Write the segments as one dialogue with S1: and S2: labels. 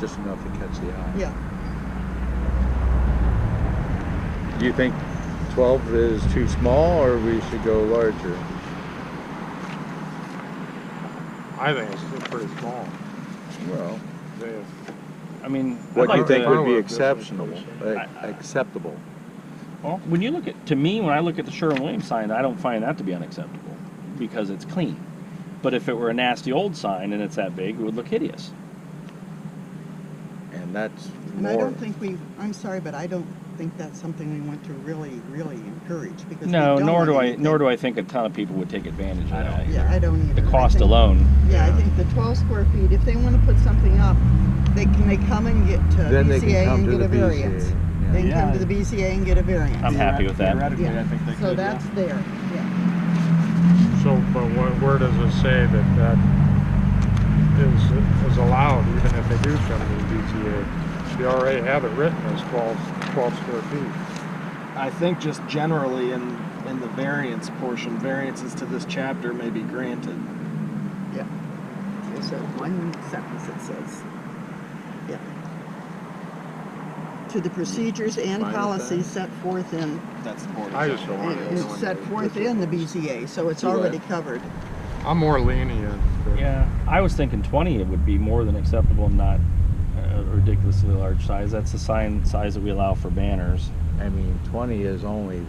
S1: just enough to catch the eye.
S2: Yeah,
S1: Do you think 12 is too small or we should go larger?
S3: I think it's still pretty small.
S1: Well,
S3: They- I mean. I'd
S1: what do you
S3: like
S1: think
S3: to-
S1: would be
S3: fireworks, that's what
S1: exceptional,
S3: I'm saying.
S1: like, acceptable?
S4: Well, when you look at, to me, when I look at the Sherwin-Williams sign, I don't find that to be unacceptable because it's clean. But if it were a nasty old sign and it's that big, it would look hideous.
S1: And that's
S2: and I
S1: more,
S2: don't think we, I'm sorry, but I don't think that's something we want to really, really encourage because. we
S4: No,
S2: don't
S4: nor
S2: want
S4: do I,
S2: anything-
S4: nor do I think a ton of people would take advantage of that.
S2: Yeah, I don't either.
S4: The
S2: I
S4: cost
S2: think-
S4: alone,
S2: Yeah, I think the twelve square feet, if they wanna put something up, they can, they come and get to
S1: then they can
S2: BCA
S1: come
S2: and
S1: to
S2: get
S1: the
S2: a variance.
S1: BCA.
S2: They can
S1: yeah.
S2: come
S3: Yeah.
S2: to the BCA and get a
S4: I'm
S2: variance.
S4: happy with that.
S5: Theoretically,
S2: Yeah.
S5: I think they
S2: So
S5: could, yeah.
S2: that's there, yeah.
S3: So, but where, where does it say that that is, is allowed, even if they do come to the DTA? They already have it written as 12, 12 square feet.
S5: I think just generally in, in the variance portion, variances to this chapter may be granted.
S2: There's a one sentence that says, yeah. To the procedures and
S5: Fine with that.
S2: policies set forth in,
S5: That's the board.
S3: I just don't want
S2: it's
S3: it.
S2: set forth in the BCA, so it's
S5: Right.
S2: already covered.
S3: I'm more lenient. but-
S4: Yeah, I was thinking 20 it would be more than acceptable, not a ridiculously large size. That's the sign size that we allow for banners.
S1: I mean, 20 is only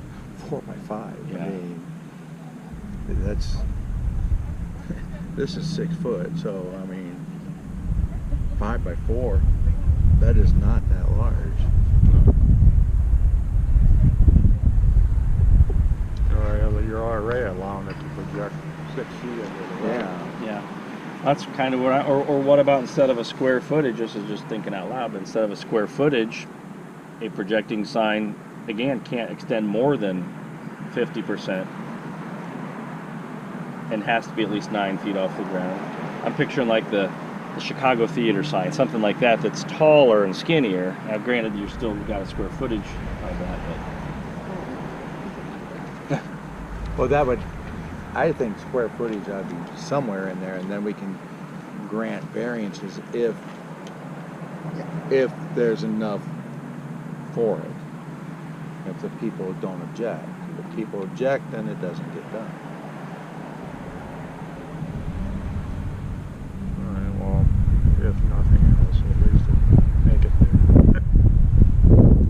S1: four by five. I
S4: Yeah.
S1: mean, that's, this is six foot, so I mean, five by four, that is not that large.
S3: Or you're- You're already allowing it to project six feet into the road.
S4: Yeah, that's kind of what I, or, or what about instead of a square footage, this is just thinking out loud, but instead of a square footage, a projecting sign, again, can't extend more than fifty percent. And has to be at least nine feet off the ground. I'm picturing like the, the Chicago theater sign, something like that, that's taller and skinnier. Now granted, you're still got a square footage of that,
S1: Well, that would, I think square footage ought to be somewhere in there, and then we can grant variances if, if there's enough for it. If the people don't object. If people object, then it doesn't get done.
S3: All right, well, if nothing else, at least it- make it there.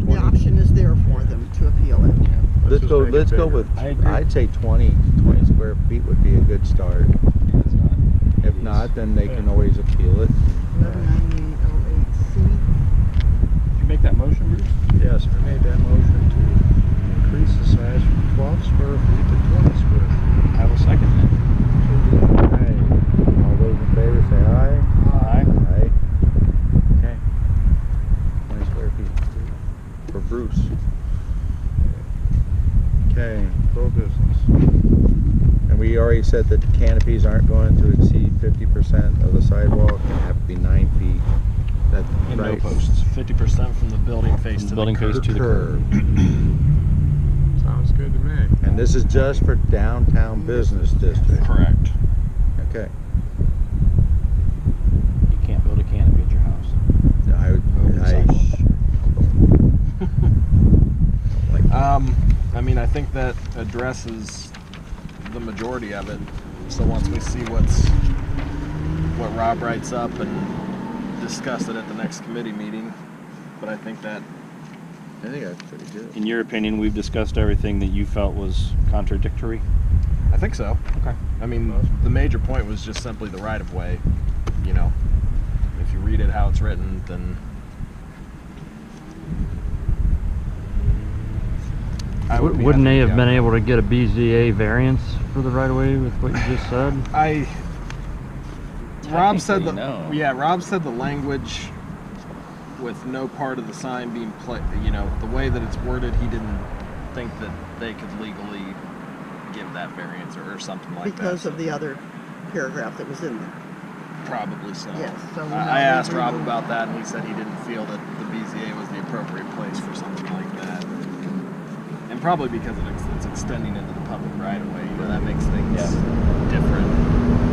S2: The option is there for them to appeal it.
S1: Let's
S3: just
S1: go,
S3: make it
S1: let's go
S3: bigger.
S1: with,
S4: I agree.
S1: I'd say 20 20 square feet would be a good start.
S4: but it's not.
S1: If not, then they can always appeal it.
S2: Eleven ninety-eight oh eight C.
S4: Did you make that motion, Bruce?
S3: Yes, I made that motion to increase the size from 12 square feet to 20 square feet.
S4: I will second that.
S1: Aye. All those in favor say aye.
S4: Aye.
S1: Aye. Okay. Twenty square feet. For Bruce. Okay,
S3: Pro business.
S1: and we already said that the canopies aren't going to exceed fifty percent of the sidewalk and have to be nine feet. That,
S5: And no
S1: right?
S5: posts, fifty percent from the building face to the
S4: Building
S5: curb.
S4: face to the curb.
S3: Sounds good to me.
S1: And this is just for downtown business district,
S5: Correct.
S1: okay?
S4: You can't build a canopy at your house.
S1: I, would-
S5: Over
S1: I.
S5: sidewalk.
S1: Like,
S5: Um, I mean, I think that addresses the majority of it. So once we see what's, what Rob writes up and discuss it at the next committee meeting, but I think that
S1: I think that's pretty good.
S4: In your opinion, we've discussed everything that you felt was contradictory?
S5: I think so.
S4: Okay.
S5: I mean, the major point was just simply the right of way. You know, if you read it how it's written, then. I would be
S6: Wouldn't they
S5: happy-
S6: have
S5: yeah.
S6: been able to get a BZA variance for the right of way with what you just said?
S5: I. Rob said the
S4: Technically, no.
S5: yeah. Rob said the language with no part of the sign being pla You know, the way that it's worded, he didn't think that they could legally give that variance or, or something like
S2: Because
S5: that.
S2: of the other paragraph that was in there.
S5: Probably so.
S2: Yes, so now
S5: I, I asked
S2: we
S5: Rob
S2: will-
S5: about that, and he said he didn't feel that the BZA was the appropriate place for something like that. And probably because it ex- it's extending into the public right of way, you know, that makes things
S4: Yeah.
S5: different.